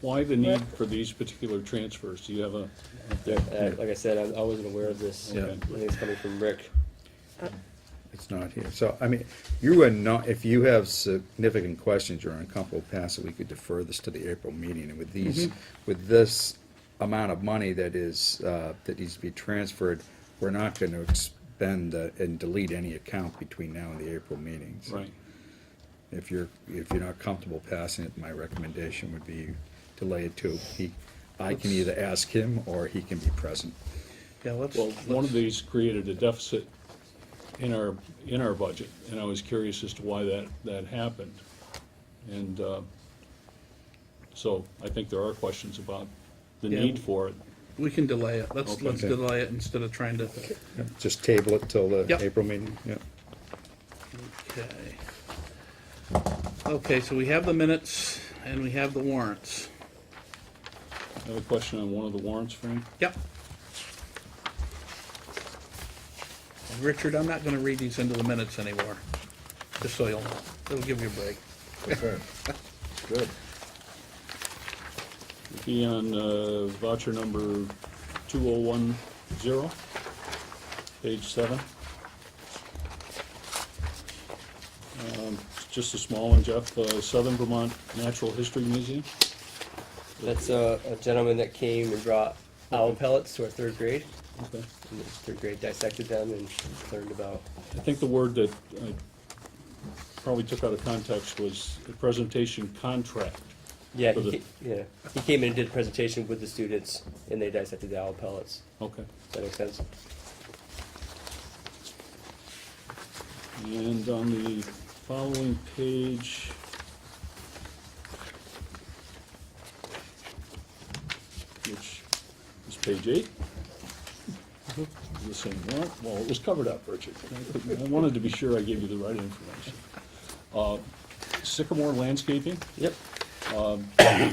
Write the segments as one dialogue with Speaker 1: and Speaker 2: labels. Speaker 1: Why the need for these particular transfers? Do you have a,
Speaker 2: Yeah, uh, like I said, I, I wasn't aware of this.
Speaker 3: Yeah.
Speaker 2: I think it's coming from Rick.
Speaker 3: It's not here. So, I mean, you are not, if you have significant questions or uncomfortable passing, we could defer this to the April meeting. And with these, with this amount of money that is, uh, that needs to be transferred, we're not gonna expend uh, and delete any account between now and the April meetings.
Speaker 1: right?
Speaker 3: If you're, if you're not comfortable passing it, my recommendation would be delay it to, he, I can either ask him or he can be present.
Speaker 4: Yeah, let's,
Speaker 1: Well, one of these created a deficit in our, in our budget, and I was curious as to why that, that happened. And, uh, so I think there are questions about the
Speaker 4: Yeah.
Speaker 1: need for it.
Speaker 4: we can delay it. Let's,
Speaker 1: Okay.
Speaker 4: let's delay it instead of trying to,
Speaker 3: Just table it till the
Speaker 4: Yep.
Speaker 3: April meeting, yeah.
Speaker 4: okay. Okay, so we have the minutes and we have the warrants.
Speaker 1: I have a question on one of the warrants, Frank.
Speaker 4: Yep. And Richard, I'm not gonna read these into the minutes anymore, just so you'll know. It'll give you a break.
Speaker 5: Good.
Speaker 1: Be on uh, voucher number two oh one zero, page seven. Um, it's Just a small one, Jeff, uh, Southern Vermont Natural History Museum.
Speaker 2: That's a, a gentleman that came and brought owl pellets to our third grade.
Speaker 1: Okay.
Speaker 2: And the third grade dissected them and learned about.
Speaker 1: I think the word that I probably took out of context was the presentation contract.
Speaker 2: Yeah,
Speaker 1: For
Speaker 2: he,
Speaker 1: the-
Speaker 2: ca- yeah. He came in and did a presentation with the students, and they dissected the owl pellets.
Speaker 1: Okay.
Speaker 2: Does that make sense?
Speaker 1: And on the following page. Which is page eight. The same warrant, well, it was covered up, Richard. I couldn't- I wanted to be sure I gave you the right information. Uh, Sycamore Landscaping, Um,
Speaker 2: Yep.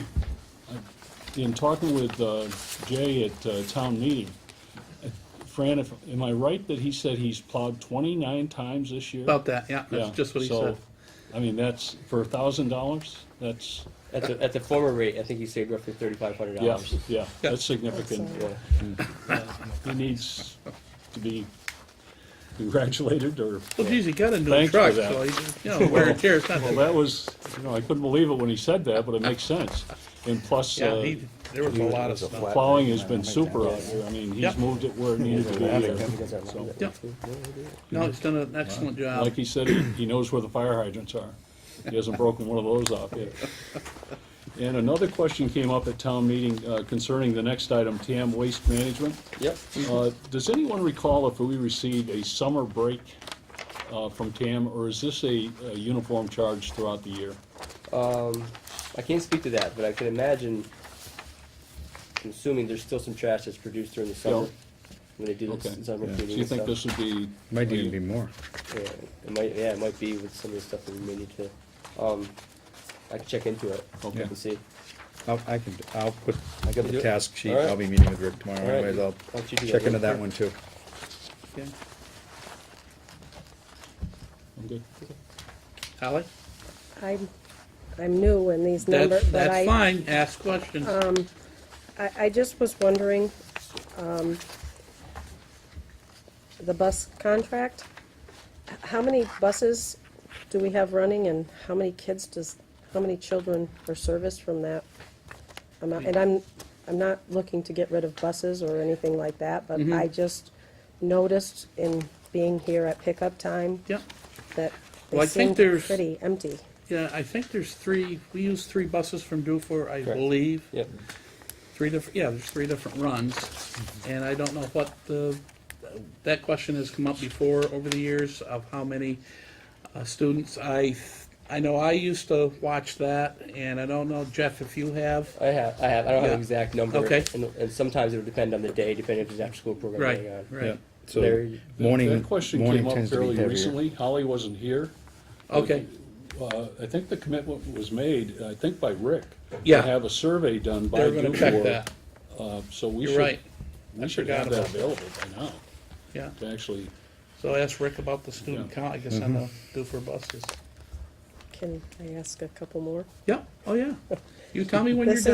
Speaker 1: in talking with uh, Jay at uh, town meeting, Fran, if, am I right that he said he's plowed twenty-nine times this year?
Speaker 4: About that, yeah,
Speaker 1: Yeah,
Speaker 4: that's just what he
Speaker 1: so,
Speaker 4: said.
Speaker 1: I mean, that's, for a thousand dollars, that's,
Speaker 2: At the, at the former rate, I think he saved roughly thirty-five hundred
Speaker 1: yeah,
Speaker 2: dollars.
Speaker 1: yeah, that's significant.
Speaker 2: Yeah.
Speaker 1: He needs to be congratulated or,
Speaker 4: Well, geez, he got a new
Speaker 1: Thanks for
Speaker 4: truck,
Speaker 1: that.
Speaker 4: so he, you know, wear and tear, it's not
Speaker 1: well,
Speaker 4: that.
Speaker 1: that was, you know, I couldn't believe it when he said that, but it makes sense. And plus,
Speaker 4: Yeah,
Speaker 1: uh,
Speaker 4: he, there was a
Speaker 5: It
Speaker 4: lot of
Speaker 5: was a
Speaker 4: stuff.
Speaker 5: flat-
Speaker 1: plowing has been super out here. I mean, he's
Speaker 4: Yep.
Speaker 1: moved it where it needed to be. there.
Speaker 4: Yeah. No, he's done an excellent job.
Speaker 1: Like he said, he he knows where the fire hydrants are. He hasn't broken one of those off yet. And another question came up at town meeting uh, concerning the next item, TAM waste management.
Speaker 2: Yep.
Speaker 1: Uh, Does anyone recall if we received a summer break uh, from TAM, or is this a a uniform charge throughout the year?
Speaker 2: Um, I can't speak to that, but I can imagine, I'm assuming there's still some trash that's produced during the summer.
Speaker 1: Yeah.
Speaker 2: When they do
Speaker 1: Okay.
Speaker 2: the summer
Speaker 3: Yeah.
Speaker 2: cleaning and stuff.
Speaker 1: Do you
Speaker 4: uh,
Speaker 1: think this would be?
Speaker 3: Might even be more.
Speaker 2: Yeah, it might, yeah, it might be with some of the stuff that we may need to, um, I can check into it.
Speaker 1: Okay.
Speaker 2: And see.
Speaker 3: I'll, I can, I'll put, I got
Speaker 2: You do
Speaker 3: the
Speaker 2: it?
Speaker 3: task sheet,
Speaker 2: All right.
Speaker 3: I'll be meeting with Rick tomorrow
Speaker 2: All right.
Speaker 3: anyways, I'll
Speaker 2: Why don't you do that
Speaker 3: check into
Speaker 2: real
Speaker 3: that
Speaker 2: quick?
Speaker 3: one too.
Speaker 4: Okay.
Speaker 1: I'm good.
Speaker 4: Ally?
Speaker 6: I'm, I'm new in these numbers,
Speaker 4: That's,
Speaker 6: but
Speaker 4: that's
Speaker 6: I,
Speaker 4: fine, ask questions.
Speaker 6: I, I just was wondering, um, the bus contract, h- how many buses do we have running and how many kids does, how many children are serviced from that? amount? And I'm, I'm not looking to get rid of buses or anything like that, but
Speaker 4: Mm-hmm.
Speaker 6: I just noticed in being here at pickup time
Speaker 4: Yeah,
Speaker 6: that
Speaker 4: Well, I
Speaker 6: they
Speaker 4: think
Speaker 6: seemed
Speaker 4: there's-
Speaker 6: pretty empty.
Speaker 4: yeah, I think there's three, we use three buses from Dufour, I
Speaker 2: Correct.
Speaker 4: believe.
Speaker 2: Yep,
Speaker 4: Three different, yeah, there's three different runs, and I don't know what the, that question has come up before over the years of how many uh, students. I, I know I used to watch that, and I don't know, Jeff, if you have.
Speaker 2: I have, I have, I don't have
Speaker 4: Yeah.
Speaker 2: an exact number.
Speaker 4: Okay.
Speaker 2: And, and sometimes it'll depend on the day, depending if there's after-school program
Speaker 4: Right,
Speaker 2: going on.
Speaker 3: Yeah.
Speaker 4: right,
Speaker 2: There
Speaker 3: So,
Speaker 2: you-
Speaker 3: morning,
Speaker 1: That question
Speaker 3: morning
Speaker 1: came up
Speaker 3: tends to be
Speaker 1: fairly
Speaker 3: heavier.
Speaker 1: recently. Holly wasn't here.
Speaker 4: okay,
Speaker 1: Uh, I think the commitment was made, I think by Rick.
Speaker 4: Yeah.
Speaker 1: To have a survey done by
Speaker 4: they're gonna check
Speaker 1: Dufour.
Speaker 4: that,
Speaker 1: Uh, So we
Speaker 4: you're
Speaker 1: should,
Speaker 4: right, I
Speaker 1: we should
Speaker 4: forgot
Speaker 1: have that
Speaker 4: about that.
Speaker 1: available by now,
Speaker 4: yeah.
Speaker 1: to actually,
Speaker 4: So ask Rick about the student
Speaker 1: Yeah.
Speaker 4: count, I guess, on the Dufour buses.
Speaker 6: Can I ask a couple more?
Speaker 4: Yeah, oh, yeah. You tell me when you're
Speaker 6: This
Speaker 4: done.